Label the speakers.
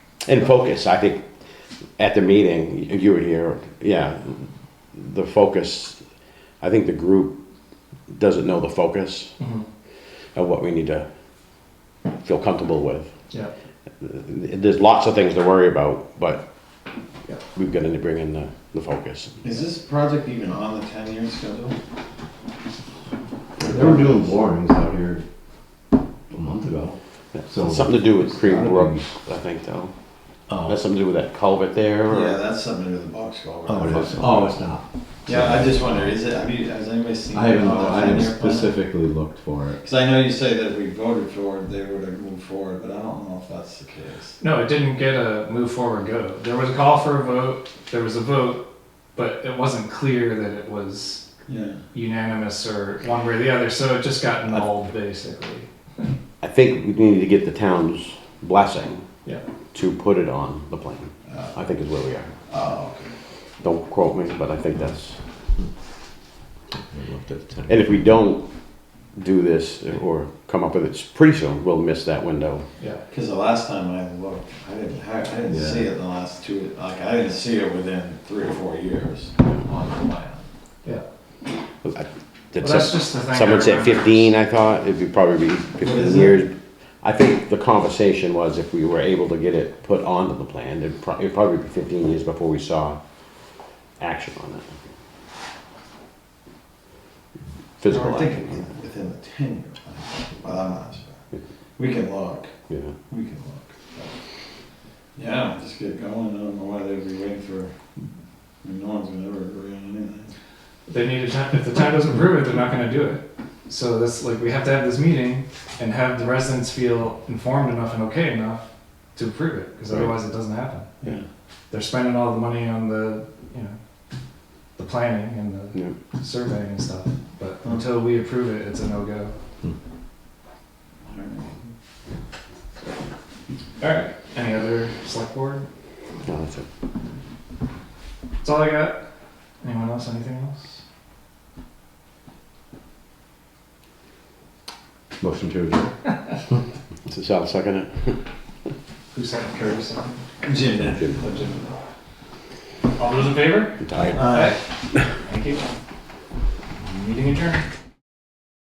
Speaker 1: And focus, I think, at the meeting, you were here, yeah, the focus, I think the group doesn't know the focus
Speaker 2: Mhm.
Speaker 1: of what we need to feel comfortable with.
Speaker 2: Yeah,
Speaker 1: There's lots of things to worry about, but
Speaker 2: Yeah.
Speaker 1: we've got to bring in the, the focus.
Speaker 3: Is this project even on the ten-year schedule?
Speaker 4: They were doing borings out here a month ago. So-
Speaker 1: Something to do with Cream
Speaker 4: Gotta be.
Speaker 1: Brook, I think, though.
Speaker 4: Oh.
Speaker 1: That's something to do with that culvert there,
Speaker 3: Yeah,
Speaker 1: or?
Speaker 3: that's something to do with the box culvert.
Speaker 4: Oh, it is. Oh, it's not.
Speaker 3: Yeah, I just wondered, is it, have you, has anybody seen?
Speaker 4: I haven't,
Speaker 3: it on the
Speaker 4: I haven't
Speaker 3: 10-year plan?
Speaker 4: specifically looked for it.
Speaker 3: Cause I know you say that if we voted for it, they would have moved forward, but I don't know if that's the case.
Speaker 2: no, it didn't get a move forward go. There was a call for a vote, there was a vote, but it wasn't clear that it was
Speaker 3: Yeah.
Speaker 2: unanimous or one way or the other, so it just got nulled basically.
Speaker 1: I think we need to get the town's blessing
Speaker 2: Yeah.
Speaker 1: to put it on the plan,
Speaker 3: Uh,
Speaker 1: I think is where we are.
Speaker 3: Oh, okay.
Speaker 1: Don't quote me, but I think that's,
Speaker 4: I looked at the time.
Speaker 1: and if we don't do this or come up with it pretty soon, we'll miss that window.
Speaker 2: Yeah.
Speaker 3: Cause the last time I looked, I didn't, I I didn't
Speaker 4: Yeah.
Speaker 3: see it in the last two, like, I didn't see it within three or four years on the plan.
Speaker 2: Well,
Speaker 1: Did
Speaker 2: that's
Speaker 1: some-
Speaker 2: just the thing. I
Speaker 1: Someone said
Speaker 2: remember.
Speaker 1: fifteen, I thought, it'd be probably be fifteen
Speaker 3: is it?
Speaker 1: years. I think the conversation was if we were able to get it put onto the plan, it'd probably, it'd probably be fifteen years before we saw action on it. Physical
Speaker 3: I think it was
Speaker 1: action,
Speaker 3: within the ten-year plan, but I'm not sure. We can look.
Speaker 1: yeah.
Speaker 3: We can look. Yeah, just get going, I don't know why they'd be waiting for, I mean, no one's gonna ever agree on anything.
Speaker 2: They need to, if the town doesn't approve it, they're not gonna do it. So that's like, we have to have this meeting and have the residents feel informed enough and okay enough to approve it, because
Speaker 1: Right.
Speaker 2: otherwise it doesn't happen.
Speaker 1: Yeah.
Speaker 2: They're spending all the money on the, you know, the planning and the
Speaker 1: Yeah.
Speaker 2: surveying and stuff, but until we approve it, it's a no-go. Alright. Any other select board?
Speaker 1: No, that's it.
Speaker 2: That's all I got. Anyone else, anything else?
Speaker 4: Motion to adjourn.
Speaker 1: So Sal, second it?
Speaker 2: Who said Curtis?
Speaker 3: Jim
Speaker 1: Jim.
Speaker 2: All those in favor?
Speaker 1: I'm tired.
Speaker 2: Thank you. Meeting adjourned.